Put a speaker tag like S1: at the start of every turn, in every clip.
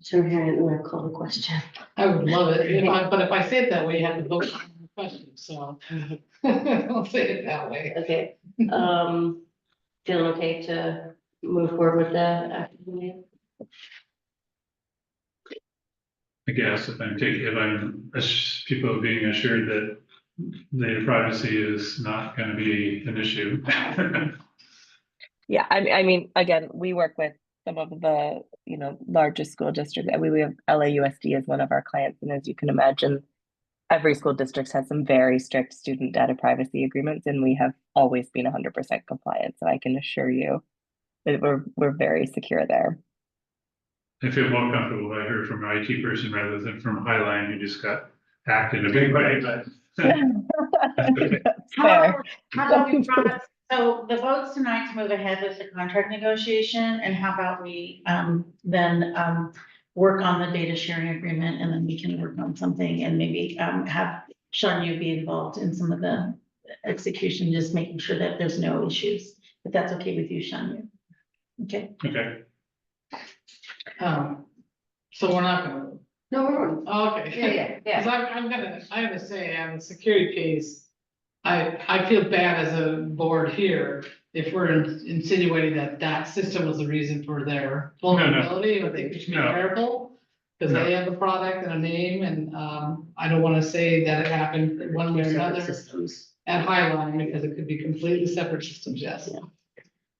S1: So here I am gonna call the question.
S2: I would love it, if I, but if I say it that way, you have to vote on the question, so. I'll say it that way.
S1: Okay, um, feeling okay to move forward with that after the meeting?
S3: I guess if I'm taking, if I'm, ass- people being assured that their privacy is not gonna be an issue.
S4: Yeah, I mean, I mean, again, we work with some of the, you know, largest school districts. I mean, we have LAUSD as one of our clients, and as you can imagine, every school district has some very strict student data privacy agreements, and we have always been hundred percent compliant, so I can assure you that we're, we're very secure there.
S3: I feel more comfortable if I heard from an IT person rather than from Highline who just got hacked in a big way, but.
S4: That's
S5: How
S4: fair.
S5: about- How about we promise, so the votes tonight to move ahead with the contract negotiation, and how about we, um, then, um, work on the data sharing agreement, and then we can work on something and maybe, um, have Shanya be involved in some of the execution, just making sure that there's no issues, if that's okay with you, Shanya. Okay,
S3: Okay,
S2: Um, so we're not gonna, vote.
S1: No, we're on.
S2: Oh, okay.
S1: Yeah, yeah,
S2: Cause I'm, I'm gonna, I have to say, on the security case, I, I feel bad as a board here if we're insinuating that that system was the reason for their
S3: no.
S2: vulnerability, or they should be
S3: No.
S2: careful. Cause they have a product and a name, and, um, I don't wanna say that it happened one way or
S1: yeah.
S2: another
S1: Systems.
S2: at Highline, because it could be completely separate systems, yes.
S1: Yeah.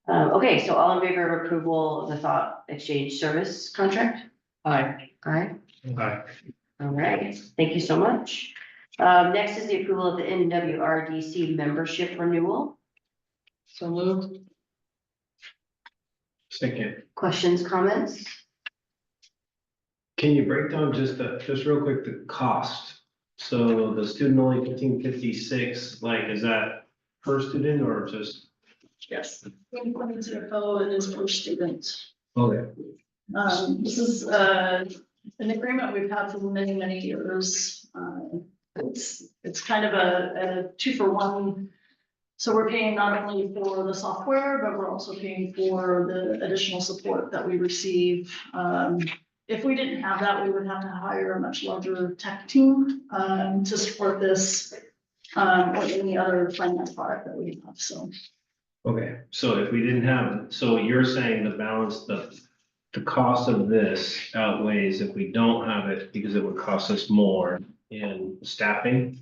S1: Um, okay, so all in favor of approval of the thought exchange service contract?
S2: Aye.
S1: Aye.
S3: Aye.
S1: All right, thank you so much. Um, next is the approval of the NWRDC membership renewal.
S2: So moved.
S6: Second,
S1: Questions, comments?
S6: can you break down just the, just real quick, the cost? So the student only fifteen fifty-six, like, is that per student or just?
S7: Yes. Twenty-one is your fellow and is for students.
S6: Okay.
S7: Um, this is, uh, an agreement we've had for many, many years. Uh, It's, it's kind of a, a two for one. So we're paying not only for the software, but we're also paying for the additional support that we receive. Um, if we didn't have that, we would have to hire a much larger tech team, um, to support this, um, or any other finance product that we have, so.
S6: Okay, so if we didn't have, so you're saying the balance, the, the cost of this outweighs if we don't have it because it would cost us more in staffing?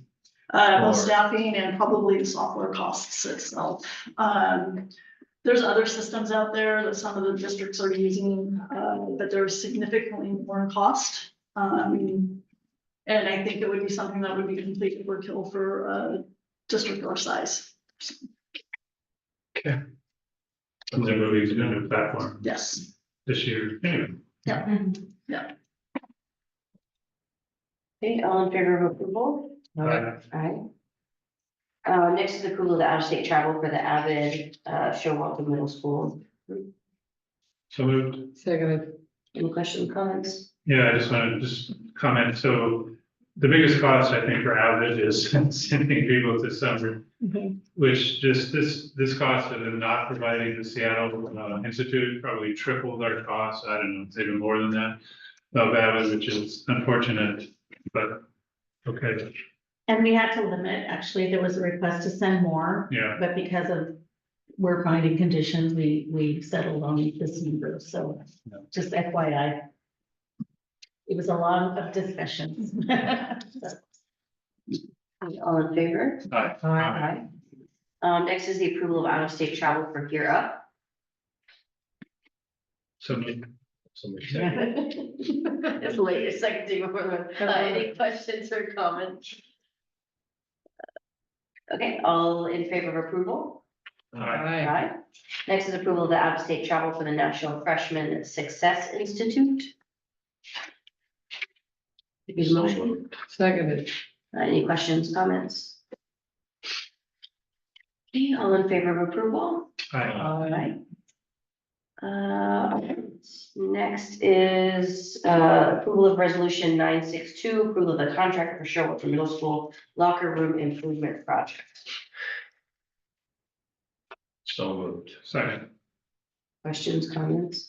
S7: Uh, well,
S6: Or-
S7: staffing and probably the software costs itself. Um, there's other systems out there that some of the districts are using, uh, but they're significantly more in cost. Um, and I think it would be something that would be complete overkill for a district our size.
S3: And they're moving to a new platform
S7: Yes,
S3: this year. Anyway,
S1: Okay, all in favor of approval?
S3: Aye.
S1: Alright. Uh, next is approval of the out-of-state travel for the Avid, uh, Showalter Middle School.
S3: So moved.
S2: Seconded.
S1: Any questions, comments?
S3: Yeah, I just wanted to just comment, so the biggest cost, I think, for Avid is sending people to summer.
S4: Mhm.
S3: Which just this, this cost of them not providing the Seattle uh, Institute probably tripled our costs, I don't know, it's even more than that. Of Avid, which is unfortunate, but, okay,
S5: and we had to limit, actually, there was a request to send more,
S3: yeah,
S5: but because of we're finding conditions, we, we settled on this number, so
S3: Yeah.
S5: just FYI. It was a lot of discussions.
S1: All in favor?
S3: Aye.
S1: Aye. Um, next is the approval of out-of-state travel for Gear Up.
S3: so
S6: Somebody said,
S1: It's late, it's like day before, uh, any questions or comments? Okay, all in favor of approval?
S6: uh,
S2: Aye.
S1: Aye. Next is approval of the out-of-state travel for the National Freshman Success Institute. Need a motion?
S2: Seconded.
S1: Uh, Any questions, comments? Okay, all in favor of approval?
S3: Aye.
S2: Aye.
S1: Aye. Uh, next is, uh, approval of resolution nine six two, approval of the contract for Sherwood for Middle School Locker Room Improvement Project.
S6: so moved.
S3: second,
S1: Questions, comments?